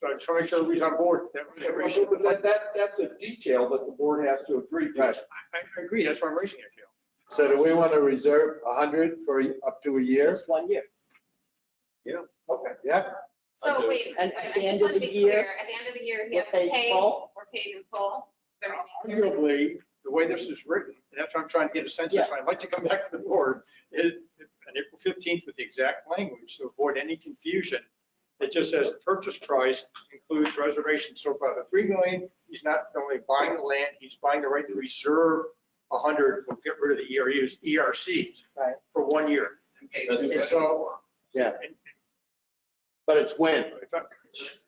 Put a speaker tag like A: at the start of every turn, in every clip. A: So I just want to make sure everybody's on board with that reservation.
B: But That, that, that's a detail that the board has to agree to.
A: I, I agree, that's why I'm raising it, Gail.
C: So do we want to reserve 100 for up to a year?
D: Just one year.
B: Okay.
C: Yeah,
E: So wait.
D: And at
E: I- I
D: the
E: just
D: end
E: wanna
D: of
E: be
D: the year,
E: clear. At the end of the year, he
D: we're
E: has to
D: paid
E: pay,
D: full.
E: we're paid in full. the remainder.
A: Arguably, the way this is written, and that's what I'm trying to get a sense of, so I'd like to come back to the board, is on April 15th with the exact language to avoid any confusion. It just says the purchase price includes reservation, so for the 3 million, he's not only buying the land, he's buying the right to reserve 100, we'll get rid of the E ERUs, ERCs.
D: Right.
A: For one year.
F: and pay
C: That's
F: two
A: And
F: hundred.
A: so.
C: Yeah. but it's when?
F: It's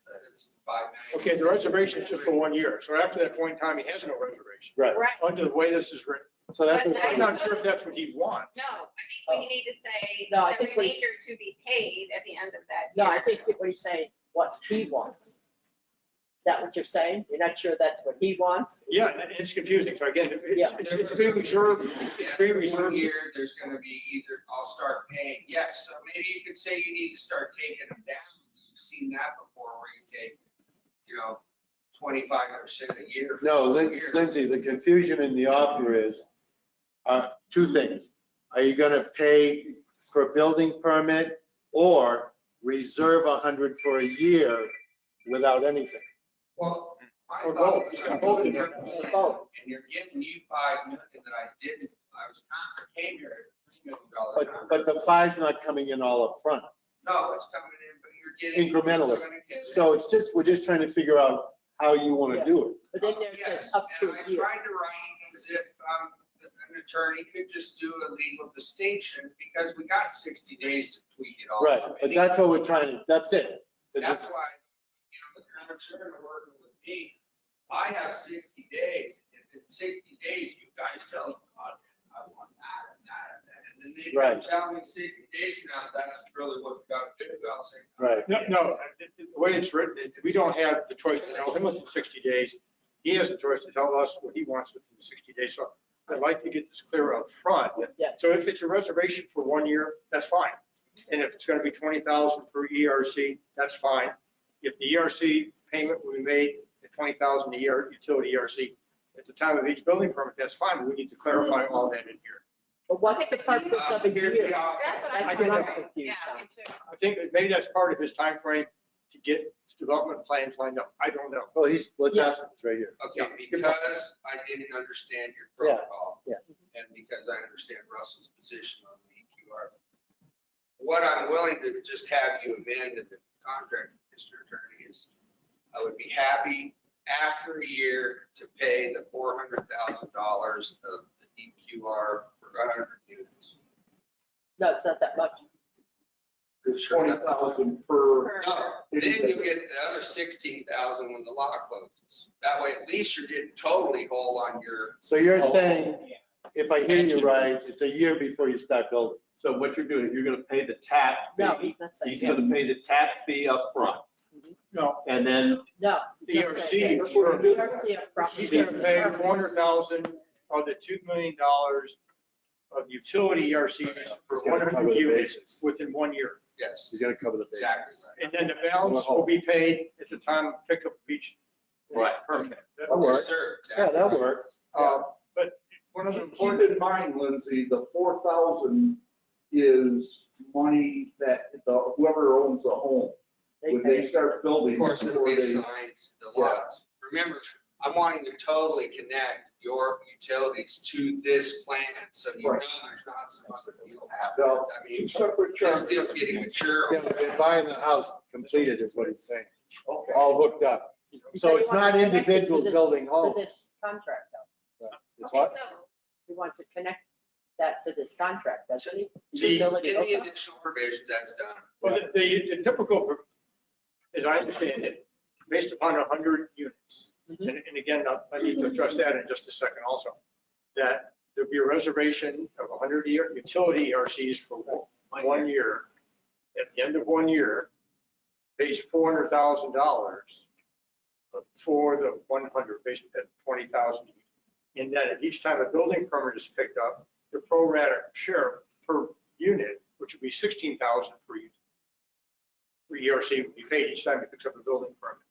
F: five million.
A: Okay, the reservation is just for one year, so after that point in time, he has no reservation,
C: Right.
E: Right,
A: under the way this is written.
C: So that's,
E: But
A: I'm not sure if that's what he wants.
E: no, I think we need to say
D: No, I
E: the
D: think we-
E: remainder to be paid at the end of that.
D: No, I
E: year.
D: think what he's saying, what he wants. Is that what you're saying? You're not sure that's what he wants?
A: Yeah, and it's confusing. So again, it's,
D: Yeah.
A: it's- it's being reserved, it's being
F: Yeah, One
A: reserved.
F: year, there's gonna be either, I'll start paying, yes, so maybe you could say you need to start taking them down. You've seen that before where you take, you know, twenty-five percent a year. for
C: no,
F: a
C: Lin-
F: year.
C: Lindsay, the confusion in the offer is, uh, two things. Are you going to pay for a building permit or reserve 100 for a year without anything?
F: Well, my
A: Or
F: thought
A: both.
F: was,
A: Oh, It's
F: I'm
A: got both in
F: looking
A: there.
F: at the plan,
D: Both.
F: and you're giving you five million that I didn't, I was not, I came here at three million dollars.
C: But, but the five's not coming in all up front.
F: No, it's coming in, but you're getting.
C: Incrementally.
F: you're gonna get
C: So it's just, we're just trying to figure out how you want to do it.
D: But then there it says
F: Yes,
D: up to a
F: And I
D: year.
F: tried to write it as if um, an attorney could just do a legal distinction because we got 60 days to tweak it all.
C: Right,
F: up.
C: but that's what we're trying to, that's it.
F: That's why, you know, the concern of working with me, I have 60 days. If in 60 days, you guys tell me, "Oh, I want that and that and that. And then they
C: Right.
F: tell me 60 days now, that's really what we got to do. I'll say.
C: Right.
A: No, no, the the way it's written, it- we don't have the choice to tell him within 60 days. He has the choice to tell us what he wants within 60 days. So I'd like to get this clear up front.
D: Yeah.
A: So if it's a reservation for one year, that's fine. And if it's going to be 20,000 for ERC, that's fine. If the ERC payment will be made at 20,000 a year, utility ERC, at the time of each building permit, that's fine. We need to clarify all that in here.
D: But what's the purpose of a
F: Here's
D: year?
F: the offer.
E: That's what
A: I
E: I'm
A: think I'm
E: wondering.
D: confused
E: Yeah,
D: now.
E: me too.
A: I think that maybe that's part of his time frame to get his development plans lined up. I don't know.
C: Well, he's, let's ask him, it's right here.
F: Okay, because I didn't understand your
C: Yeah,
F: protocol.
C: yeah.
F: And because I understand Russell's position on the EQR. What I'm willing to just have you amend in the contract, Mr. Attorney, is I would be happy after a year to pay the four hundred thousand dollars of the EQR for hundred units.
D: No, it's not that much.
B: It's 20,000 per,
F: No, then you get the other sixteen thousand when the law closes. That way, at least you're getting totally whole on your,
C: So you're
G: Oh.
C: saying, if I hear you right, it's a year before you start building.
G: So what you're doing, you're gonna pay the tap
D: No,
G: fee.
D: he's not saying.
G: He's gonna pay the tap fee up front,
A: No,
G: and then
D: No.
A: the
D: he's not
A: ERC,
D: saying that.
A: is for-
D: We don't see a problem.
A: he's gonna pay four hundred thousand of the two million dollars of utility ERCs for
C: He's
A: one
C: gonna cover
A: hundred
C: the
A: units
C: bases.
A: within one year.
F: yes,
C: He's gonna cover the bases.
F: exactly. right.
A: And then the balance will be paid at the time of pickup of each
G: Right.
A: permit.
C: That works.
F: Yes, sir,
C: Yeah,
F: exactly.
C: that works.
A: Uh, But one of the
B: keep
A: important,
B: in mind, Lindsay, the 4,000 is money that the- whoever owns the home,
D: They
B: when they
D: pay.
B: start building.
F: Of course, it'll be
B: before they-
F: assigned to the lots. Remember, I'm wanting to totally connect your utilities to this plan, so you know
B: Right.
F: there's not something you'll have.
B: No,
F: I
B: Two
F: mean,
B: separate
F: this
B: charges.
F: deal's getting mature.
C: Yeah, but they're buying the house completed is what he's saying,
B: Okay.
C: all hooked up.
D: He said
C: So
D: he
C: it's
D: wants to
C: not
D: connect it to
C: individuals
D: this-
C: building
D: To
C: homes.
D: this contract though.
C: It's
E: Okay,
C: what?
E: so
D: He wants to connect that to this contract, doesn't he?
F: See, In
D: Utility,
F: the
D: okay.
F: initial provisions, that's done.
A: well, the- the the typical, as I understand it, based upon hundred units.
D: Mhm.
A: And and again, I- I need to address that in just a second also, that there'll be a reservation of 100 year utility ERCs for one- one year. At the end of one year, pays $400,000 for the 100, based at 20,000. And then at each time a building permit is picked up, the pro rata share per unit, which would be 16,000 per u- per ERC, would be paid each time it picks up a building permit.